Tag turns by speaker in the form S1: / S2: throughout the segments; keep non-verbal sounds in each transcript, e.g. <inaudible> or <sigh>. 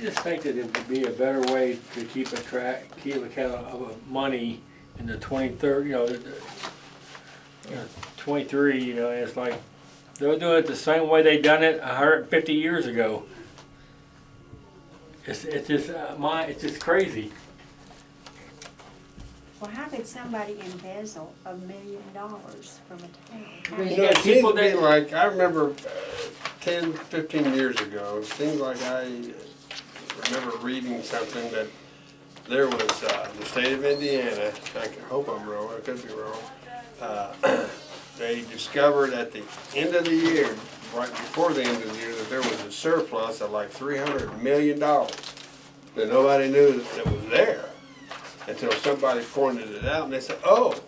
S1: just think that it would be a better way to keep a track, keep account of a money in the twenty-third, you know, the- the- you know, twenty-three, you know, it's like, they're doing it the same way they done it a hundred and fifty years ago. It's, it's just, uh, my, it's just crazy.
S2: Well, how could somebody embezzle a million dollars from a town?
S1: You
S2: How-
S3: You know, it
S1: got
S3: seems
S1: people
S3: to be
S1: that-
S3: like, I remember uh, 10, 15 years ago, it seems like I remember reading something that there was, uh, the state of Indiana, I can- hope I'm wrong, I could be wrong. uh, <clears throat> They discovered at the end of the year, right before the end of the year, that there was a surplus of like three hundred million dollars that nobody knew that was there until somebody pointed it out and they said, oh,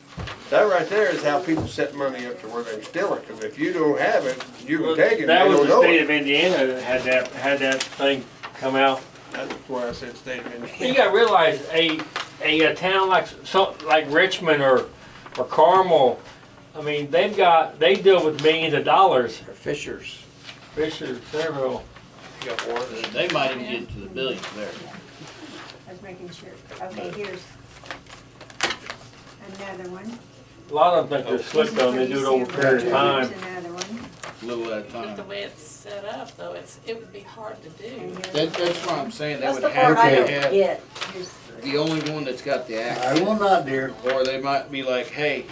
S3: that right there is how people set money up to where they can steal it, because if you don't have it, you can take it, and they
S1: That was
S3: don't
S1: the
S3: know
S1: state
S3: it.
S1: of Indiana that had that, had that thing come out.
S3: That's why I said state of
S1: You
S3: Indiana.
S1: gotta realize a, a, uh town like so like Richmond or or Carmel, I mean they've got they deal with millions of dollars.
S3: Fishers.
S1: Richard, several.
S3: You got one.
S4: They might even get to the billions there.
S2: I was making sure. Okay, here's another one.
S1: A lot of them think they're slick though, and they do it over a period of time.
S2: Here's another one.
S4: Little at a
S5: But the
S4: time.
S5: way it's set up, though, it's, it would be hard to do.
S2: And here's,
S4: That, that's what I'm saying, they
S6: That's
S4: would
S6: the part I
S4: have to
S6: don't
S4: have
S6: get.
S2: here's,
S4: the only one that's got the
S7: I
S4: act.
S7: will not, dear.
S4: Or they might be like, hey,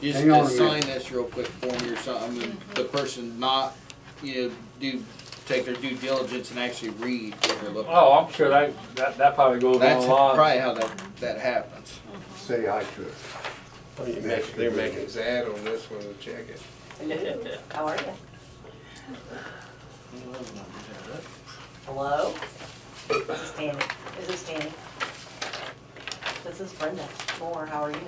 S4: just
S7: Hang on a
S4: just sign
S7: minute.
S4: this real quick for me or something, and the
S6: Mm-hmm.
S4: person not, you know, do, take their due diligence and actually read what they're looking.
S1: Oh, I'm sure that that, that probably goes on
S4: That's
S1: a lot.
S4: probably how that, that happens.
S7: Say hi to it.
S3: They're making sad on this one, to check it.
S6: How are you? Hello? This is Danny. This is Danny. This is Brenda Moore. How are you? <laughs>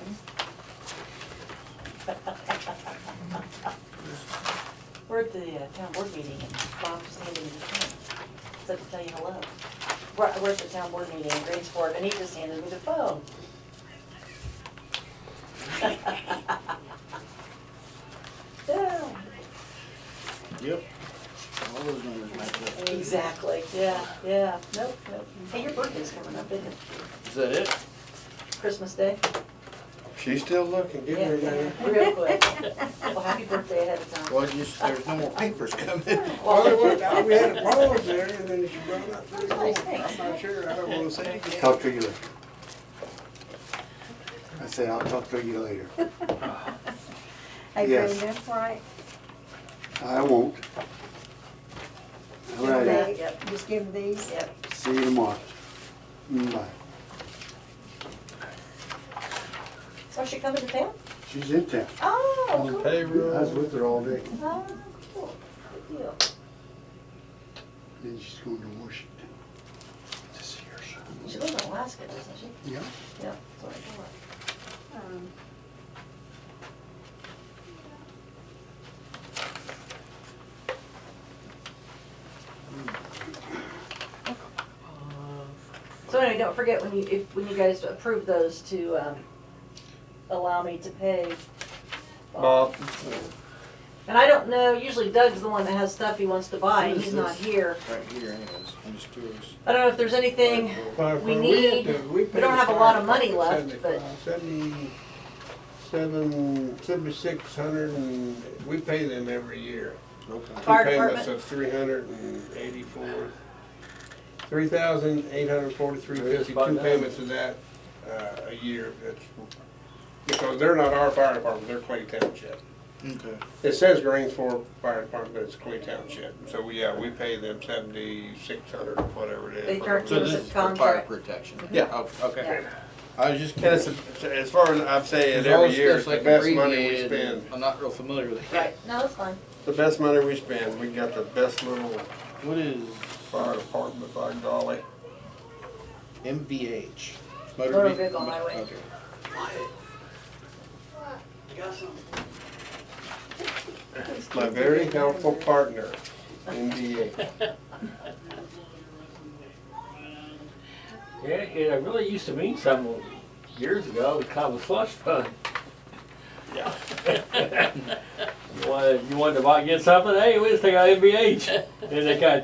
S6: We're at the uh, town board meeting and Bob's standing in the front. Said to tell you hello. We're, we're at the town board meeting in Greensport and he just handed me the phone. Yeah.
S4: Yep. All those numbers match up.
S6: Exactly, yeah, yeah, nope, nope. Hey, your birthday's coming up, isn't it?
S4: Is that it?
S6: Christmas Day?
S3: She's still looking, give
S6: Yeah,
S3: her
S6: yeah,
S3: that.
S6: Real quick. Well, happy birthday ahead of time.
S4: Well, just, there's no more papers coming.
S3: Well,
S6: Well,
S3: it was- <laughs> we had a pause there, and then she brought up, three more.
S6: Nice,
S3: I'm
S6: thanks.
S3: not sure, I don't wanna say again.
S7: Talk to you later. I said, I'll talk to you later.
S2: hey
S7: Yes.
S2: Brenda, right,
S7: I won't. All right,
S6: Okay, Yep,
S2: just give them these.
S6: yep.
S7: see you tomorrow. Mm, Bye.
S6: So she coming to town?
S7: She's in town.
S6: Oh,
S3: On
S6: cool.
S7: I was
S3: payroll.
S7: with her all day,
S6: Oh, cool, good deal.
S7: then she's going to Washington to see her son.
S6: She lives in Alaska, doesn't she?
S7: Yeah.
S6: Yeah, that's what I thought.
S2: Um,
S6: So anyway, don't forget when you, if, when you guys approve those to, um, allow me to pay.
S3: Bob,
S6: And I don't know, usually Doug's the one that has stuff he wants to buy, and
S4: Who's
S6: he's not
S4: this?
S6: here.
S4: <laughs> Right here anyways, I'm just curious.
S6: I don't know if there's anything
S3: Well,
S6: We
S3: for-
S6: need-
S3: had to-
S6: we don't
S3: paid
S6: have a lot of
S3: five
S6: money
S3: hundred
S6: left, but-
S3: Seventy-seven, seventy-six hundred and, we pay them every year.
S4: Okay.
S6: Fire
S3: Two payments
S6: department?
S3: of three hundred and eighty-four, three thousand eight hundred forty-three
S1: They're just
S3: fifty,
S1: about
S3: two
S1: done.
S3: payments of that, uh, a year. That's Because they're not our fire department, they're Clay Township.
S4: Okay.
S3: It says Greensboro Fire Department, but it's Clay Township. So, we- yeah, we pay them seventy-six hundred, whatever it is.
S6: They charge
S4: So
S3: whatever it
S4: this
S3: is.
S4: is for fire
S6: Contract.
S4: protection?
S3: Yeah.
S4: Oh, Okay.
S6: Yeah.
S4: I was just
S3: And it's,
S4: curious.
S3: as far as I've said,
S4: There's all
S3: every
S4: this
S3: year,
S4: stuff's
S3: it's the
S4: like
S3: best money we
S4: abbreviated and
S3: spend.
S4: I'm not real familiar with it.
S6: Right, no, that's fine.
S3: The best money we spend, we got the best little
S4: What is
S3: fire department by golly.
S4: MVH?
S6: Motor
S4: vehi-
S6: vehicle highway.
S4: Okay.
S3: My very helpful partner, NDA.
S1: Yeah, it really used to mean something years ago. It was kind of a slush fund.
S3: Yeah.
S1: you wanted you wanted to buy, get something? Hey, we just take out MBH, and they kind of